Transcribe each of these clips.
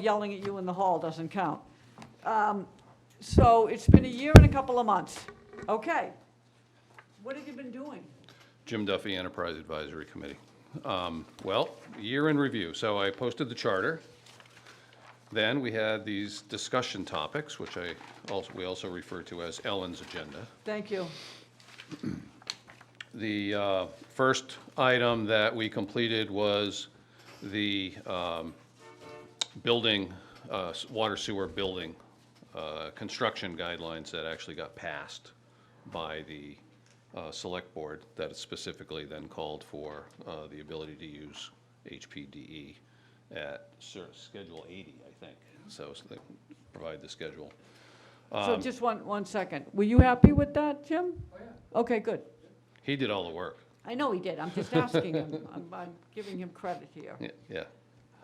yelling at you in the hall doesn't count. Um, So it's been a year and a couple of months. Okay. What have you been doing? Jim Duffy, Enterprise Advisory Committee. Um, Well, year in review, so I posted the charter. Then we had these discussion topics, which I, also we also refer to as Ellen's Agenda. Thank you. The uh, first item that we completed was the um, building, uh, s- water sewer building uh, construction guidelines that actually got passed by the uh, Select Board that specifically then called for uh, the ability to use HPDE E at cer- Schedule 80, I think. So s- they provide the schedule. So Um, just one, one second. Were you happy with that, Jim? Oh, yeah. Okay, good. He did all the work. I know he did. I'm just asking him. I'm, I'm giving him credit here. Yeah, Yeah.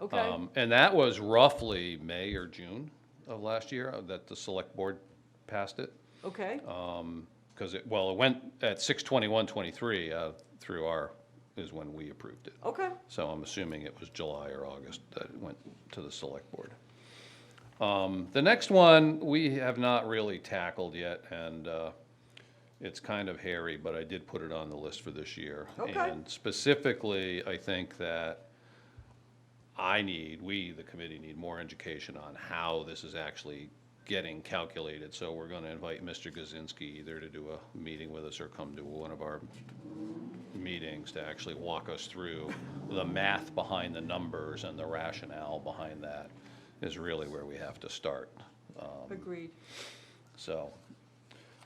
Okay? Um, And that was roughly May or June of last year uh, that the select board passed it. Okay? um, Because it, well, it went at six twenty-one, twenty-three uh, through our, is when we approved it. Okay. So I'm assuming it was July or August that it went to the select board. Um, The next one, we have not really tackled yet, and uh, it's kind of hairy, but I did put it on the list for this year. Okay. And specifically, I think that I need, we, the committee, need more education on how this is actually getting calculated. So we're going to invite Mr. Gazinski either to do a meeting with us or come to one of our meetings to actually walk us through the math behind the numbers and the rationale behind that is really where we have to start, um, Agreed. so.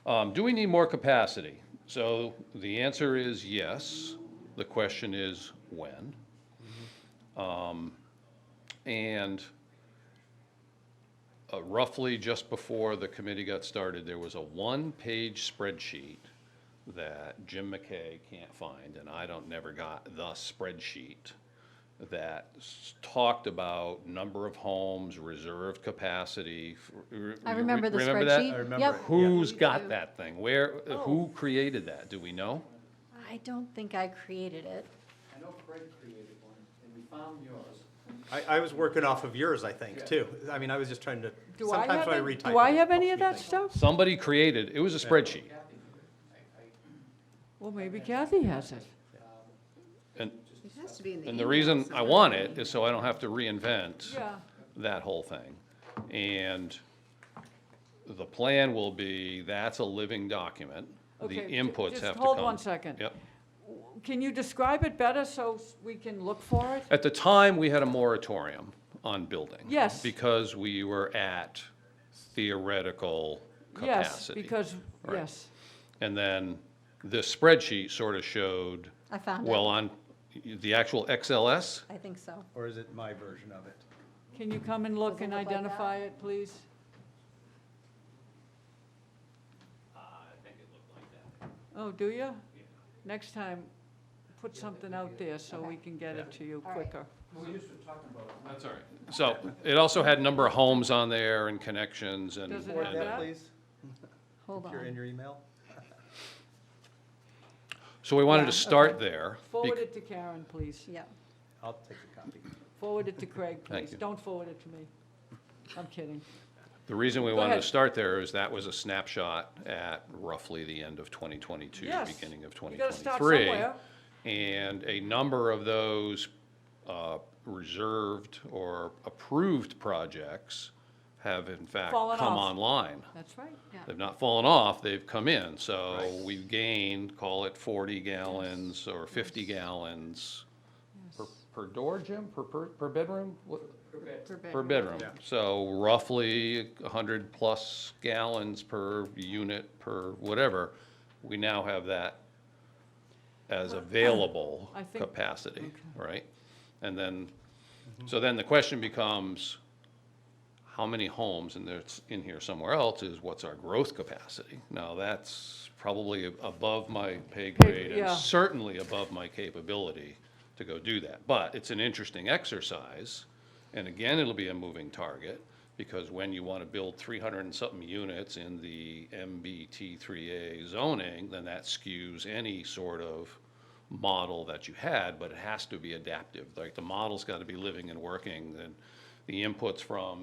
um, Do we need more capacity? So the answer is yes. The question is when? Um, And uh, roughly just before the committee got started, there was a one-page spreadsheet that Jim McKay can't find, and I don't, never got the spreadsheet that s- talked about number of homes, reserved capacity. f- re- I remember the remember that? spreadsheet. I remember Yep. it. Who's do. got that thing? Where, Oh. who created that? Do we know? I don't think I created it. I know Fred created one, and we found yours. I, I was working off of yours, I think, too. I mean, I was just trying to, Do I sometimes have, when I any- retype. do I it, it have any helps of me that think. stuff? Somebody created, it was a spreadsheet. Well, maybe Kathy has it. And, It has to be in and the reason I want it is so I don't have to reinvent Yeah. that whole thing. And the plan will be, that's a living document. The Okay, ju- inputs just have to come. hold one second. Yep. Can you describe it better so s- we can look for it? At the time, we had a moratorium on building. Yes. Because we were at theoretical Yes, capacity. because, Right. yes. And then this spreadsheet sort of showed, I found well, it. on the actual XLS, I think so. Or is it my version of it? Can you come and look Does it and look like that? identify it, please? I think it looked like that. Oh, do you? Next time, put something out there so we can get it to you All right. quicker. We used to talk about it. that's all right. So it also had number of homes on there and connections and. Does it Forward have and- that? that, please, Hold if you're in on. your email. So we wanted Yeah, to start okay. there. Forward it to Karen, please. Yeah. I'll take a copy. Forward it to Craig, Thank please. you. Don't forward it to me. I'm kidding. The reason we Go wanted to ahead. start there is that was a snapshot at roughly the end of 2022, Yes. beginning of You 2023. gotta start somewhere. And a number of those uh, reserved or approved projects have in fact Fallen come off. online. That's right. They've not fallen off, they've come in. So we've gained, call it 40 gallons or 50 gallons per- per door, Jim, per- per per bedroom? What- Per bedroom, Yeah. so roughly hundred plus gallons per unit, per whatever, we now have that as available I think- capacity, right? And then, so then the question becomes, how many homes, and there's in here somewhere else, is what's our growth capacity? Now, that's probably above my pay grade and yeah. certainly above my capability to go do that. But it's an interesting exercise, and again, it'll be a moving target, because when you want to build three hundred and something units in the MBT three A zoning, then that skews any sort of model that you had, but it has to be adaptive, like, the model's got to be living and working, and the inputs from